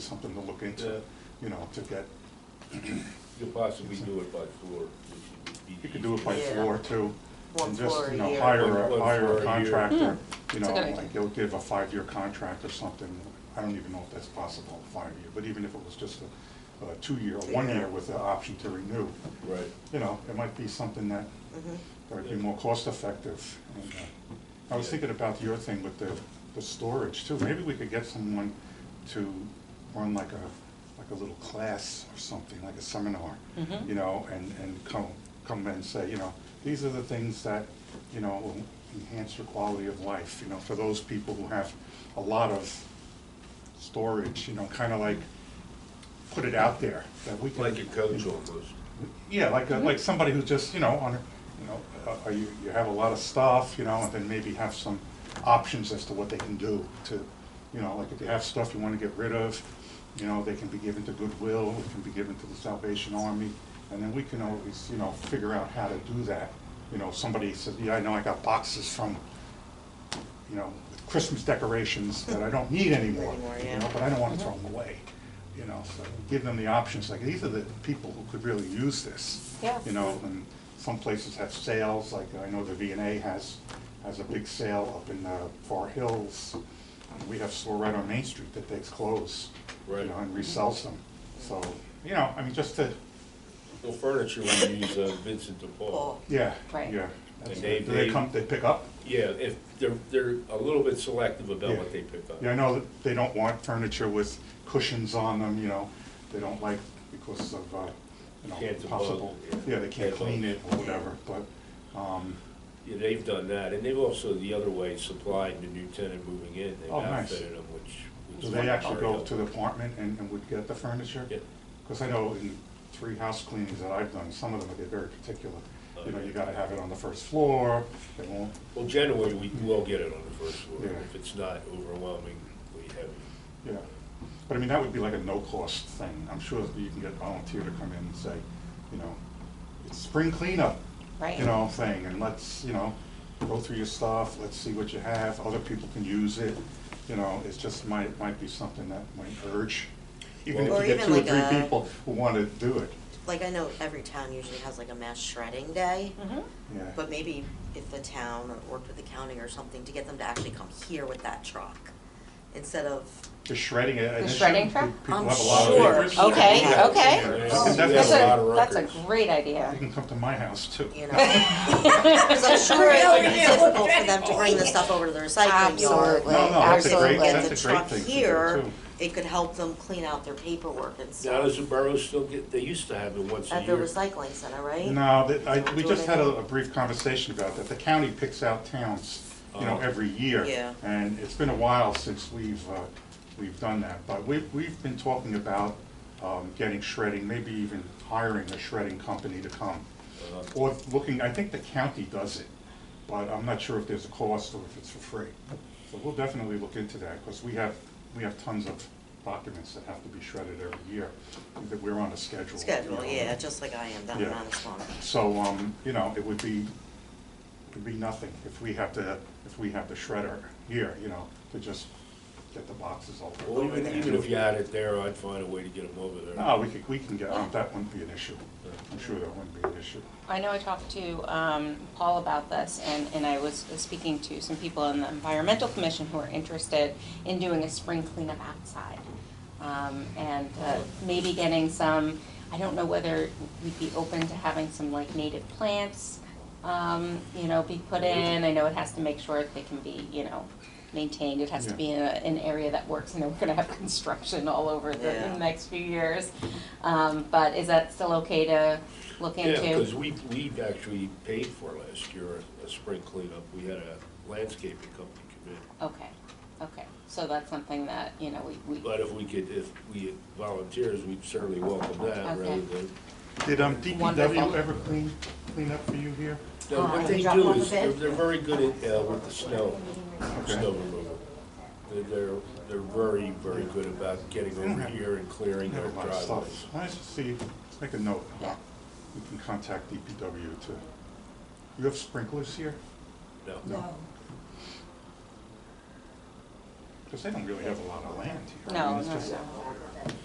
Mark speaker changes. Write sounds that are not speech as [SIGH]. Speaker 1: something to look
Speaker 2: Yeah.
Speaker 1: into, you know, to get,
Speaker 2: You'll possibly do it by floor. which would be
Speaker 1: you could do it by
Speaker 2: easier.
Speaker 3: Yeah.
Speaker 1: floor too.
Speaker 3: One
Speaker 1: and just,
Speaker 3: floor a
Speaker 1: you know,
Speaker 3: year.
Speaker 1: Hire
Speaker 2: One-
Speaker 1: a,
Speaker 2: one
Speaker 1: hire
Speaker 2: floor a
Speaker 1: a
Speaker 2: year.
Speaker 1: contractor, you
Speaker 3: Hmm. That's a
Speaker 1: know,
Speaker 3: good idea.
Speaker 1: like they'll give a five-year contract or something. I don't even know if that's possible, five-year, but even if it was just a, a two-year, one-year with the option to renew,
Speaker 2: Right.
Speaker 1: you know, it might be something that,
Speaker 3: Mhm.
Speaker 1: that would be more cost-effective. And, uh, I was
Speaker 2: Yeah.
Speaker 1: thinking about your thing with the, the storage too. Maybe we could get someone to run like a, like a little class or something, like a seminar. you know, and, and come, come and say, you know, these are the things that, you know, will enhance your quality of life, you know, for those people who have a lot of storage, you know, kind of like, put it out there, that we can.
Speaker 2: Like a coach almost.
Speaker 1: Yeah, like, a- like somebody who's just, you know, on, a- you know, uh, uh, you, you have a lot of stuff, you know, and then maybe have some options as to what they can do to, you know, like if you have stuff you wanna get rid of, you know, they can be given to Goodwill, it can be given to the Salvation Army, and then we can always, you know, figure out how to do that. You know, somebody says, yeah, I know I got boxes from, you know, Christmas decorations that I don't need anymore,
Speaker 3: Anymore,
Speaker 1: you
Speaker 3: yeah.
Speaker 1: know, but I don't wanna throw them away, you know, so give them the options, like, these are the people who could really use this.
Speaker 3: Yeah.
Speaker 1: You know, and some places have sales, like, I know the V and A has, has a big sale up in, uh, Far Hills. We have a store right on Main Street that takes clothes, you
Speaker 2: Right.
Speaker 1: know, and resells them, so, you know, I mean, just to,
Speaker 2: Well, furniture, we use uh, Vincent DePaul.
Speaker 3: Cool.
Speaker 1: yeah,
Speaker 3: Right.
Speaker 1: yeah. That's
Speaker 2: And they-
Speaker 1: it. Do they
Speaker 2: they-
Speaker 1: come, they pick up?
Speaker 2: Yeah, if, they're, they're a little bit selective about
Speaker 1: Yeah.
Speaker 2: what they pick up.
Speaker 1: Yeah, I know that they don't want furniture with cushions on them, you know, they don't like because of, uh, you
Speaker 2: Can't
Speaker 1: know,
Speaker 2: debug,
Speaker 1: possible,
Speaker 2: yeah.
Speaker 1: yeah, they can't
Speaker 2: Can't
Speaker 1: clean
Speaker 2: debug.
Speaker 1: it or whatever, but, um,
Speaker 2: Yeah, they've done that, and they've also, the other way, supplied the new tenant moving in, they've
Speaker 1: Oh, nice.
Speaker 2: outfitted them, which. which
Speaker 1: do
Speaker 2: is
Speaker 1: they actually
Speaker 2: very
Speaker 1: go to
Speaker 2: helpful.
Speaker 1: the apartment and, and would get the furniture?
Speaker 2: Yeah.
Speaker 1: Because I know in three house cleanings that I've done, some of them get very particular.
Speaker 2: Uh,
Speaker 1: You know, you gotta have it on the first floor, they won't,
Speaker 2: Well, generally, we will get it on the first floor,
Speaker 1: Yeah.
Speaker 2: if it's not overwhelmingly heavy.
Speaker 1: yeah. But I mean, that would be like a no-cost thing, I'm sure that you can get a volunteer to come in and say, you know, it's spring cleanup,
Speaker 3: Right.
Speaker 1: you know, thing, and let's, you know, go through your stuff, let's see what you have, other people can use it, you know, it's just might, might be something that might urge, even
Speaker 2: Or
Speaker 1: if you get
Speaker 3: even
Speaker 1: two or
Speaker 3: like
Speaker 1: three
Speaker 3: a-
Speaker 1: people who wanna do it,
Speaker 3: Like I know every town usually has like a mass shredding day,
Speaker 2: Mm-hmm.
Speaker 1: yeah.
Speaker 3: but maybe if the town or worked with the county or something to get them to actually come here with that truck instead of,
Speaker 1: Just shredding it. and
Speaker 4: The
Speaker 1: it
Speaker 4: shredding
Speaker 1: shouldn't
Speaker 4: truck?
Speaker 1: be- People
Speaker 3: I'm
Speaker 1: have a lot of
Speaker 2: sure.
Speaker 1: papers.
Speaker 2: Okay,
Speaker 1: Yeah.
Speaker 2: okay.
Speaker 1: Yeah.
Speaker 2: Yeah.
Speaker 1: I think
Speaker 2: That's
Speaker 1: that's
Speaker 4: Oh, That's
Speaker 2: a
Speaker 1: what-
Speaker 2: lot of
Speaker 4: a, that's a
Speaker 2: records.
Speaker 4: great
Speaker 1: You
Speaker 4: [LAUGHS] idea.
Speaker 1: can come to my house too.
Speaker 3: you know. [LAUGHS] 'Cause I'm sure it's like difficult for them to bring the stuff over to the recycling yard.
Speaker 4: Absolutely.
Speaker 1: No, no, that's a
Speaker 4: Absolutely.
Speaker 1: great,
Speaker 3: Get the
Speaker 1: that's a great
Speaker 3: truck
Speaker 1: thing to do
Speaker 3: here,
Speaker 1: too.
Speaker 3: it could help them clean out their paperwork and
Speaker 2: Now, does
Speaker 3: stuff
Speaker 2: the borough still get, they used to have it once a
Speaker 3: at the
Speaker 2: year.
Speaker 3: recycling center, right?
Speaker 1: No, that, I, we
Speaker 3: Do it
Speaker 1: just had a,
Speaker 3: anyway.
Speaker 1: a brief conversation about that. The county picks out towns, you know,
Speaker 2: Oh.
Speaker 1: every year.
Speaker 3: Yeah.
Speaker 1: And it's been a while since we've, uh, we've done that, but we've, we've been talking about, um, getting shredding, maybe even hiring a shredding company to come.
Speaker 2: Uh,
Speaker 1: Or looking, I think the county does it, but I'm not sure if there's a cost or if it's for free. So we'll definitely look into that, because we have, we have tons of documents that have to be shredded every year, that we're on a schedule.
Speaker 3: Schedule,
Speaker 1: you know.
Speaker 3: yeah, just like I am, that
Speaker 1: Yeah.
Speaker 3: I'm honest one.
Speaker 1: So, um, you know, it would be, it would be nothing if we have to, if we have the shredder here, you know, to just get the boxes all.
Speaker 2: Well, even, even if you had it there, I'd find a way to get them over there.
Speaker 1: No, we could, we can get, um, that wouldn't be an issue. I'm sure that wouldn't be an issue.
Speaker 4: I know I talked to um, Paul about this, and, and I was speaking to some people in the Environmental Commission who are interested in doing a spring cleanup outside. Um, And uh, maybe getting some, I don't know whether we'd be open to having some like native plants, um, you know, be put in. I know it has to make sure that they can be, you know, maintained. It has to
Speaker 1: Yeah.
Speaker 4: be in a- an area that works, and then we're gonna have [LAUGHS] construction all over the
Speaker 3: Yeah.
Speaker 4: next few years. Um, But is that still okay to look into?
Speaker 2: Yeah, because we, we actually paid for last year a- a spring cleanup. We had a landscaping company come in.
Speaker 4: Okay, okay, so that's something that, you know, we, we,
Speaker 2: But if we could, if we had volunteers, we'd certainly welcome that rather
Speaker 4: Okay.
Speaker 2: than.
Speaker 1: Did, um,
Speaker 4: Wonderful.
Speaker 1: DPW ever clean, clean up for you here?
Speaker 2: No,
Speaker 4: Oh,
Speaker 2: what
Speaker 4: you
Speaker 2: they
Speaker 4: drop
Speaker 2: do
Speaker 4: off a
Speaker 2: is,
Speaker 4: bit?
Speaker 2: they're, they're very good at, uh, with the snow,
Speaker 1: Okay.
Speaker 2: snow removal. They're, they're, they're very, very good about getting over here and clearing
Speaker 1: We have
Speaker 2: their
Speaker 1: a lot of
Speaker 2: driveways.
Speaker 1: stuff. Nice to see, let's make a note. uh,
Speaker 4: Yeah.
Speaker 1: You can contact DPW to, you have sprinklers here?
Speaker 2: No.
Speaker 1: No. because they don't really have a lot of land here. I
Speaker 4: No,
Speaker 1: mean, it's
Speaker 4: no,
Speaker 1: just-
Speaker 4: no.